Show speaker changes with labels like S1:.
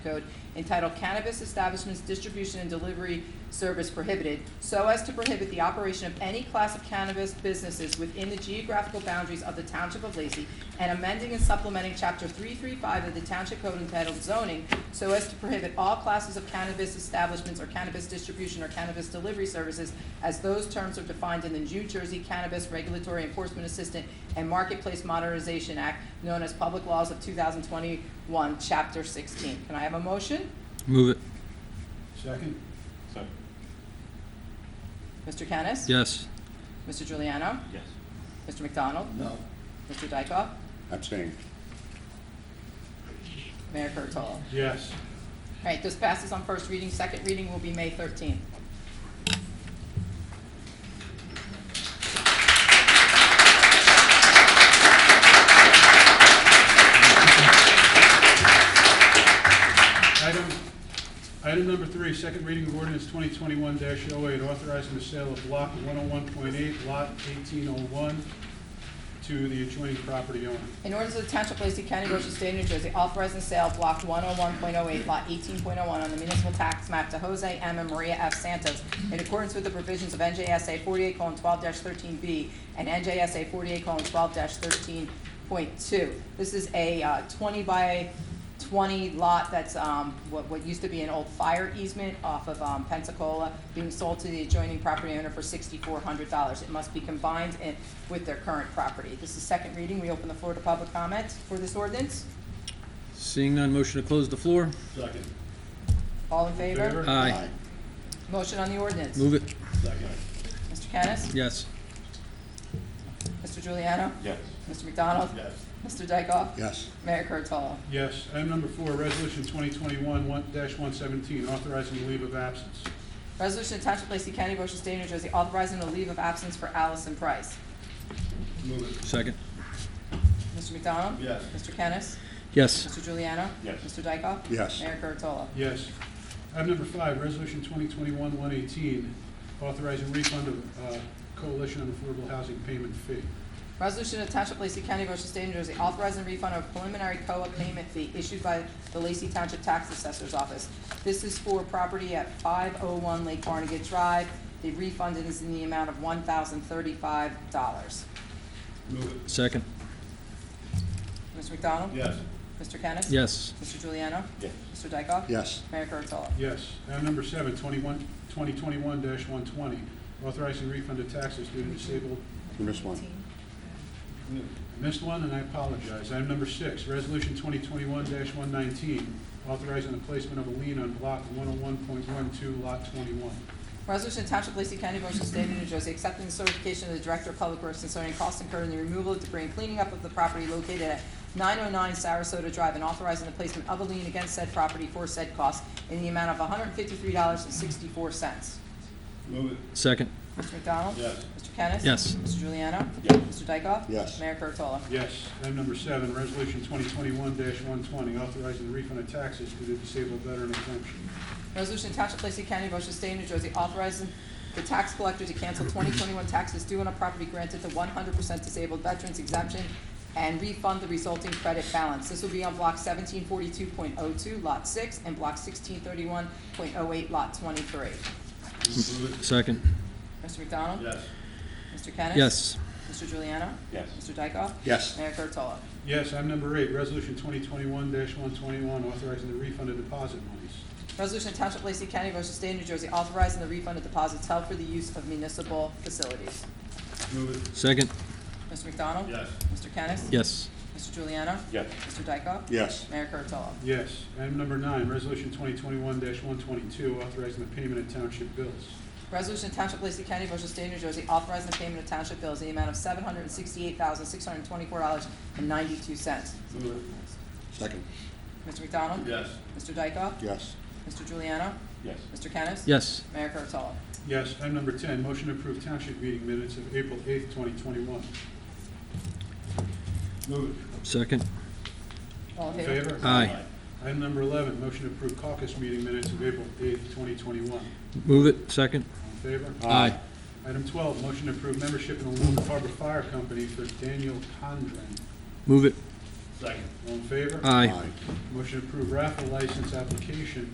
S1: Code entitled Cannabis Establishments Distribution and Delivery Service Prohibited, so as to prohibit the operation of any class of cannabis businesses within the geographical boundaries of the Township of Lacey, and amending and supplementing Chapter 335 of the Township Code entitled Zoning, so as to prohibit all classes of cannabis establishments or cannabis distribution or cannabis delivery services as those terms are defined in the New Jersey Cannabis Regulatory Enforcement Assistant and Marketplace Modernization Act, known as Public Laws of 2021, Chapter 16. Can I have a motion?
S2: Move it,
S3: Second?
S4: Second.
S1: Mr. Kennis?
S2: yes.
S1: Mr. Giuliano,
S4: Yes.
S1: Mr. McDonald?
S3: No.
S1: Mr. Dykoff?
S5: Abstain.
S1: Mayor Kurtolo? All
S3: Yes.
S1: right, this passes on first reading. Second reading will be May 13th.
S3: Item, item number three, second reading of ordinance twenty twenty-one 8 authorizing the sale of block one oh one point eight, lot eighteen oh one to the adjoining property owner.
S1: In order to the Township of Lacey County, Ocean State, New Jersey, authorizing the sale of block one oh one point oh eight, lot eighteen point oh one on the municipal tax map to Jose M. and Maria F. Santos in accordance with the provisions of NJSA forty-eight twelve thirteen B and NJSA forty-eight twelve thirteen point two. This is a uh, twenty by twenty lot that's, um, what, what used to be an old fire easement off of, um, Pensacola, being sold to the adjoining property owner for sixty-four hundred dollars. It must be combined in, with their current property. This is second reading. We open the floor to public comment for this ordinance.
S2: Seeing none, motion to close the floor?
S3: Second.
S1: All in favor?
S3: Favor?
S2: Aye.
S1: Motion on the ordinance.
S2: Move it,
S3: Second.
S1: Mr. Kennis?
S2: yes.
S1: Mr. Giuliano,
S4: Yes.
S1: Mr. McDonald?
S3: Yes.
S1: Mr. Dykoff?
S5: Yes.
S1: Mayor Kurtolo?
S3: Yes. Item number four, resolution twenty twenty-one one one seventeen, authorizing the leave of absence.
S1: Resolution to Township of Lacey County, Ocean State, New Jersey, authorizing a leave of absence for Allison Price.
S3: Move it.
S2: Second,
S1: Mr. McDonald?
S3: Yes.
S1: Mr. Kennis?
S2: yes.
S1: Mr. Giuliano,
S4: Yes.
S1: Mr. Dykoff?
S5: Yes.
S1: Mayor Kurtolo?
S3: Yes. Item number five, resolution twenty twenty-one one eighteen, authorizing refund of, uh, coalition on affordable housing payment fee.
S1: Resolution of Township of Lacey County, Ocean State, New Jersey, authorizing refund of preliminary COA payment fee issued by the Lacey Township Tax Assessor's Office. This is for property at five oh one Lake Barnegat Drive. The refund is in the amount of one thousand thirty-five dollars.
S3: Move it.
S2: Second,
S1: Mr. McDonald?
S3: Yes.
S1: Mr. Kennis?
S2: yes.
S1: Mr. Juliano?
S4: Yes.
S1: Mr. Dykoff?
S5: Yes.
S1: Mayor Kurtolo?
S3: Yes. Item number seven, twenty-one, twenty twenty-one dash one twenty, authorizing refund of taxes due to disabled.
S5: You missed one.
S3: I Missed one and I apologize. Item number six, resolution twenty twenty-one one nineteen, authorizing the placement of a lien on block one oh one point one two, lot twenty-one.
S1: Resolution to Township of Lacey County, Ocean State, New Jersey, accepting the certification of the Director of Public Works concerning costs incurred in the removal of debris and cleaning up of the property located at 909 Sarasota Drive and authorizing the placement of a lien against said property for said costs in the amount of $153.64. Mr.
S3: Move it.
S2: Second,
S1: McDonald?
S3: Yes.
S1: Mr. Kennis?
S2: yes.
S1: Mr. Juliano?
S4: Yes.
S1: Mr. Dykoff?
S5: Yes.
S1: Mayor Kurtolo?
S3: Yes. Item number seven, resolution twenty twenty-one one twenty, authorizing the refund of taxes due to disabled veteran exemption.
S1: Resolution Township of Lacey County, Ocean State, New Jersey, authorizing the tax collector to cancel 2021 taxes due on a property granted to 100% disabled veterans exemption and refund the resulting credit balance. This will be on Block 1742.02, Lot 6, and Block 1631.08, Lot 23.
S2: Second,
S1: Mr. McDonald?
S3: Yes.
S1: Mr. Kennis?
S2: yes.
S1: Mr. Juliano?
S4: Yes.
S1: Mr. Dykoff?
S5: Yes.
S1: Mayor Kurtolo?
S3: Yes. Item number eight, resolution twenty twenty-one one twenty-one, authorizing the refund of deposit monies.
S1: Resolution Township of Lacey County, Ocean State, New Jersey, authorizing the refund of deposits held for the use of municipal facilities.
S3: Move it.
S2: Second,
S1: Mr. McDonald?
S3: Yes.
S1: Mr. Kennis?
S2: yes.
S1: Mr. Juliano?
S4: Yes.
S1: Mr. Dykoff?
S5: Yes.
S1: Mayor Kurtolo?
S3: Yes. Item number nine, resolution twenty twenty-one one twenty-two, authorizing the payment of township bills.
S1: Resolution to Township of Lacey County, Ocean State, New Jersey, authorizing the payment of township bills in the amount of seven hundred and sixty-eight thousand, six hundred and twenty-four dollars and ninety-two cents.
S5: Second.
S1: Mr. McDonald?
S3: Yes.
S1: Mr. Dykoff?
S5: Yes.
S1: Mr. Juliano?
S4: Yes.
S1: Mr. Kennis?
S2: Yes,
S1: Mayor Kurtolo?
S3: Yes. Item number ten, motion to approve township meeting minutes of April eighth, twenty twenty-one. Move
S2: second,
S1: All in favor?
S3: Favor?
S2: Aye.
S3: Item number eleven, motion to approve caucus meeting minutes of April eighth, twenty twenty-one.
S2: move it, second.
S3: In favor?
S2: Aye.
S3: Item twelve, motion to approve membership in the Lone Harbor Fire Company for Daniel Condren.
S2: Move it,
S3: All in favor?
S2: Aye.
S3: Motion to approve raffle license application